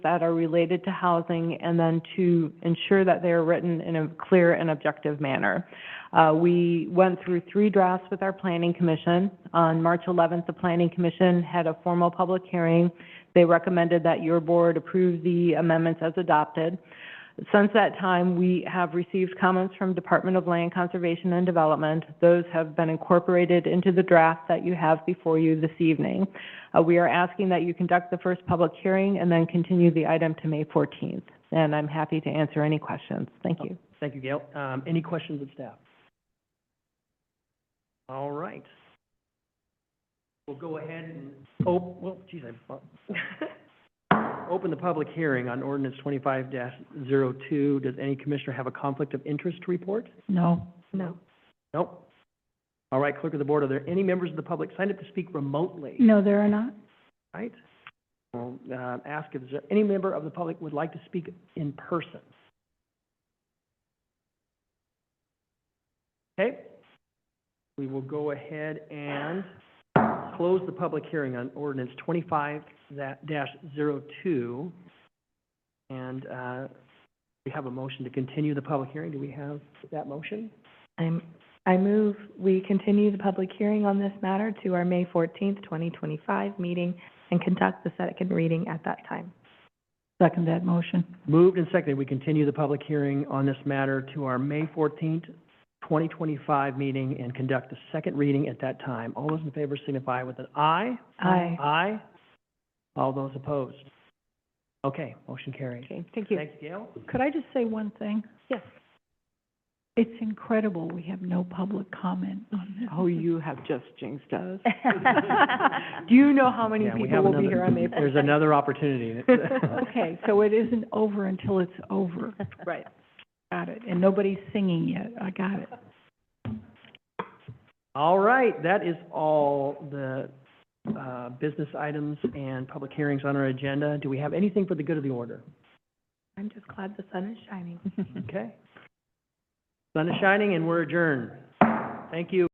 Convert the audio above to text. that are related to housing, and then to ensure that they are written in a clear and objective manner. Uh, we went through three drafts with our planning commission. On March 11th, the planning commission had a formal public hearing. They recommended that your board approve the amendments as adopted. Since that time, we have received comments from Department of Land Conservation and Development. Those have been incorporated into the draft that you have before you this evening. Uh, We are asking that you conduct the first public hearing and then continue the item to May 14th. And I'm happy to answer any questions. Thank you. Thank you, Gail. Um, any questions of staff? All right. We'll go ahead and, oh, well, geez, I, bu- open the public hearing on ordinance twenty-five 2 Does any commissioner have a conflict of interest to report? No. No. Nope. All right, clerk of the board, are there any members of the public signed up to speak remotely? No, there are not. Right? Well, uh, ask if there- any member of the public would like to speak in person. Okay? We will go ahead and close the public hearing on ordinance twenty-five that dash zero two. And, uh, we have a motion to continue the public hearing. Do we have that motion? I'm, I move we continue the public hearing on this matter to our May fourteenth, twenty twenty-five meeting and conduct the second reading at that time. Second that motion. Moved and seconded, we continue the public hearing on this matter to our May fourteenth, twenty twenty-five meeting and conduct the second reading at that time. All those in favor signify with an aye. Aye. Aye. All those opposed? Okay, motion carries. Okay, thank you. Thanks, Gail. Could I just say one thing? Yes. It's incredible we have no public comment on this. Oh, you have just jinxed us. Do you know how many Yeah, we people have will be another- here on May 14th? There's another opportunity. Okay, so it isn't over until it's over. Right. Got it. And nobody's singing yet. I got it. All right, that is all the, uh, business items and public hearings on our agenda. Do we have anything for the good of the order? I'm just glad the sun is shining. Okay. Sun is shining and we're adjourned. Thank you.